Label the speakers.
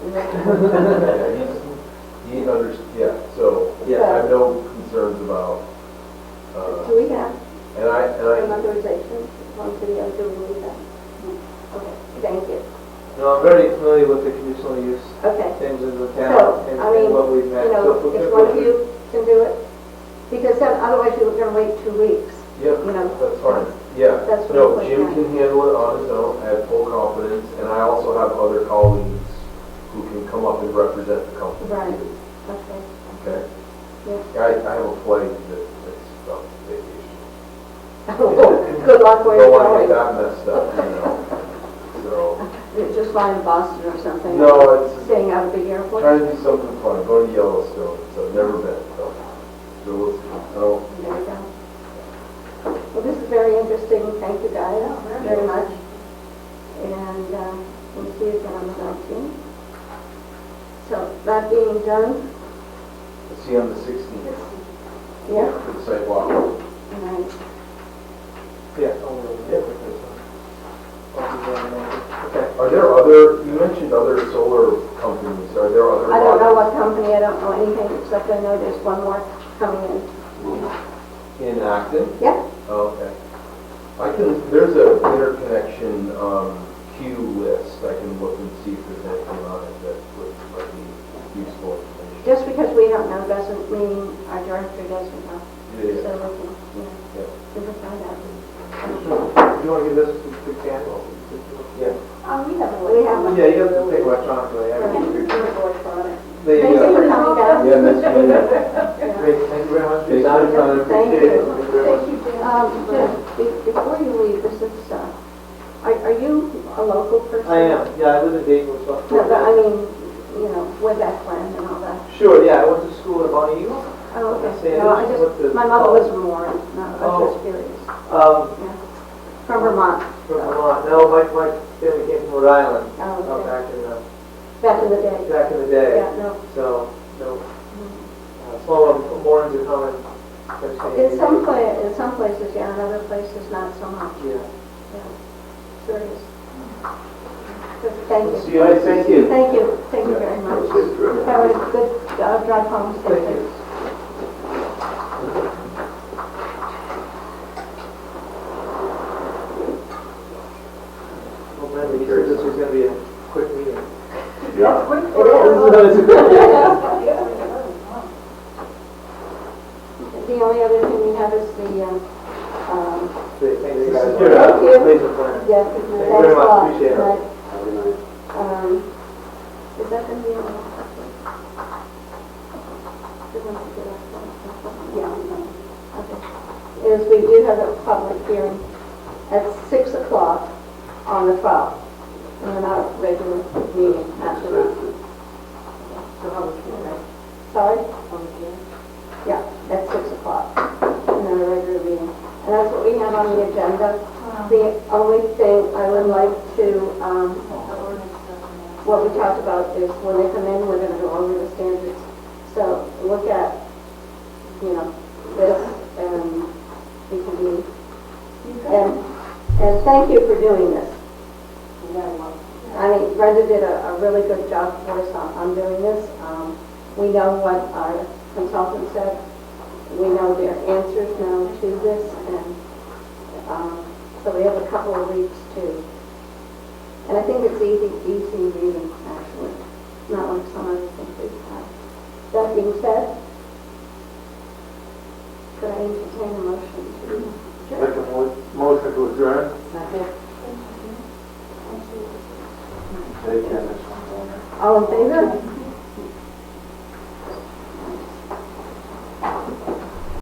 Speaker 1: Yeah, he's, he under, yeah, so I
Speaker 2: Yeah.
Speaker 1: have no concerns about, uh,
Speaker 3: Do we have
Speaker 1: and I,
Speaker 3: some
Speaker 1: and I,
Speaker 3: authorization from the other rules? Okay, thank you.
Speaker 2: No, I'm very familiar with the conditional use
Speaker 3: Okay,
Speaker 2: things in the
Speaker 3: So,
Speaker 2: town and
Speaker 3: I mean,
Speaker 2: and what we've met.
Speaker 3: you
Speaker 2: So
Speaker 3: know,
Speaker 2: if we
Speaker 3: if
Speaker 2: could
Speaker 3: one of
Speaker 2: look
Speaker 3: you can do it, because then otherwise you were gonna wait two weeks, you
Speaker 1: yeah,
Speaker 3: know.
Speaker 1: that's fine, yeah.
Speaker 3: That's what
Speaker 1: No,
Speaker 3: I'm
Speaker 1: Jim
Speaker 3: looking
Speaker 1: can handle it on his own, I have full confidence, and I also have other colleagues who can come up and represent the company.
Speaker 3: Right.
Speaker 1: too,
Speaker 3: at. Okay.
Speaker 1: Okay?
Speaker 3: Yeah.
Speaker 1: I, I have a flight that, that's about vacation.
Speaker 3: Good luck where you're
Speaker 1: Don't wanna get
Speaker 3: going.
Speaker 1: that messed up, you know? So,
Speaker 3: You're Just flying to Boston or something.
Speaker 1: no, it's,
Speaker 3: Staying out of the airport.
Speaker 1: Trying to do something fun, go to Yellowstone, so I've never been, so, so we'll see. So,
Speaker 3: There you go. Well, this is very interesting, thank you guys very much. And uh, we'll see you again on the 19th. So that being done,
Speaker 1: I'll see you on the sixteenth,
Speaker 3: yeah,
Speaker 1: for the sidewalk.
Speaker 3: and I
Speaker 2: at- Yeah, I'll really get with this one. I'll do that in a moment. Okay.
Speaker 1: Are there other, you mentioned other solar companies, are there other?
Speaker 3: I don't know what company, I don't know anything, except I know there's one more coming in.
Speaker 1: In Acton?
Speaker 3: Yeah,
Speaker 1: Oh, Okay. I can, there's a interconnection, um, queue list, I can look and see if there's anything on it that would, might be useful information.
Speaker 3: just because we don't know doesn't mean our director doesn't know.
Speaker 1: Yeah,
Speaker 3: So we can, yeah, we can find out.
Speaker 2: Do you want to give this to to Ken? Yeah.
Speaker 4: Um, we have a
Speaker 3: We have one.
Speaker 2: Yeah, you have to take electronically. I mean, they,
Speaker 3: Thank you for
Speaker 2: uh,
Speaker 3: coming down.
Speaker 1: Yeah, that's, yeah,
Speaker 2: great, thank you very much.
Speaker 1: It's not a problem.
Speaker 3: Thank
Speaker 2: Appreciate it.
Speaker 3: you.
Speaker 2: very much.
Speaker 4: Thank you, Jan.
Speaker 3: Um, Jim, be- before you leave, this is, uh, are, are you a local person?
Speaker 2: I am, yeah, I live in Dayton, which is.
Speaker 3: No, but I mean, you know, way back when and all that.
Speaker 2: Sure, yeah, I went to school at Bonny Eagle.
Speaker 3: Oh,
Speaker 2: Yeah,
Speaker 3: okay. No, I
Speaker 2: what the-
Speaker 3: just, my mother was from Warren, no, I was
Speaker 2: Oh.
Speaker 3: just curious.
Speaker 2: Um,
Speaker 3: From Vermont,
Speaker 2: from Vermont, no, my, my family came from Rhode Island,
Speaker 3: oh,
Speaker 2: out
Speaker 3: okay.
Speaker 2: back in the,
Speaker 3: back in the day.
Speaker 2: back in the day.
Speaker 3: Yeah, no.
Speaker 2: So, no, uh, small one, orange and common.
Speaker 3: In some pla, in some places, yeah, in other places, not so much,
Speaker 2: Yeah.
Speaker 3: curious. But Thank you.
Speaker 1: See you. Thank you.
Speaker 3: Thank you, thank you very much. Have a good uh, drive home, stay
Speaker 2: Thank
Speaker 3: safe.
Speaker 2: you. Well, Bradley, you said this was gonna be a quick meeting.
Speaker 3: The only other thing we have is the, um, um,
Speaker 2: Thank you guys.
Speaker 3: Thank you.
Speaker 2: Laser plan.
Speaker 3: yeah,
Speaker 2: you
Speaker 3: thanks
Speaker 2: very
Speaker 3: a
Speaker 2: much.
Speaker 3: lot.
Speaker 2: Appreciate it.
Speaker 3: Right. Um, is that gonna be on? the last one? Is that the last one? Yeah, no. okay. Is we do have a public hearing at six o'clock on the twelfth, and our regular meeting after that. Sorry? Yeah, at six o'clock, in our regular meeting. And that's what we have on the agenda. The only thing I would like to, um, what we talked about is when they come in, we're gonna go over the standards. So look at, you know, this and we can be, and, and thank you for doing this. I mean, Brenda did a, a really good job for us on, on doing this. Um, we know what our consultant said. We know their answers now to this and, um, so we have a couple of weeks to and I think it's easy, easy reading, actually, not like some other things we've had. That being said, could I entertain a motion to adjourn?
Speaker 5: Motion to adjourn.
Speaker 3: All in favor?